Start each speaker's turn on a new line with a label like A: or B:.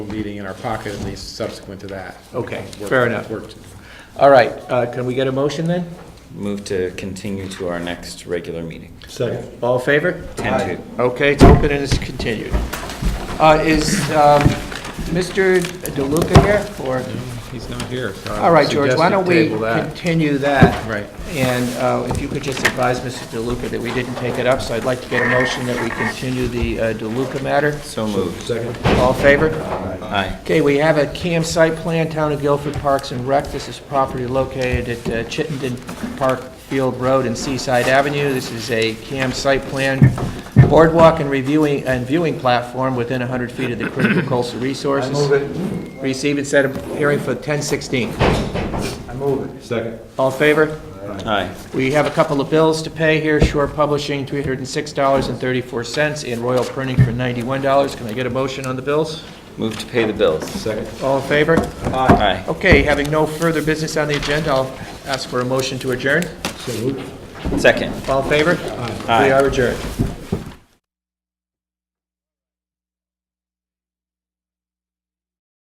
A: meeting in our pocket, at least subsequent to that.
B: Okay,
A: Work-
B: fair enough.
A: work-
B: All right, uh, can we get a motion then?
C: Move to continue to our next regular meeting.
B: Second. All in favor?
C: Ten to.
B: Okay, it's open and it's continued. Uh, Is um, Mr. DeLuca here, or,
A: He's not here, so. I
B: all right, George, why
A: suggested
B: don't we
A: table that.
B: continue that?
A: Right.
B: And uh, if you could just advise Mr. DeLuca that we didn't take it up, so I'd like to get a motion that we continue the uh, DeLuca matter.
C: So moved.
B: All in favor?
C: Aye.
B: Okay, we have a CAM site plan, Town of Guilford Parks and Rec. This is property located at uh, Chittenden Park Field Road and Seaside Avenue. This is a CAM site plan boardwalk and reviewing, and viewing platform within 100 feet of the critical coastal resources. it. Receive and set a hearing for 1016.
D: I move it. Second.
B: All in favor?
C: Aye.
B: We have a couple of bills to pay here, Shore Publishing, $306.34, and Royal Printing for $91. Can I get a motion on the bills?
C: Move to pay the bills.
D: Second.
B: All in favor?
C: Aye.
B: Okay, having no further business on the agenda, I'll ask for a motion to adjourn.
C: Second.
B: All in favor?
C: Aye.
B: We are adjourned.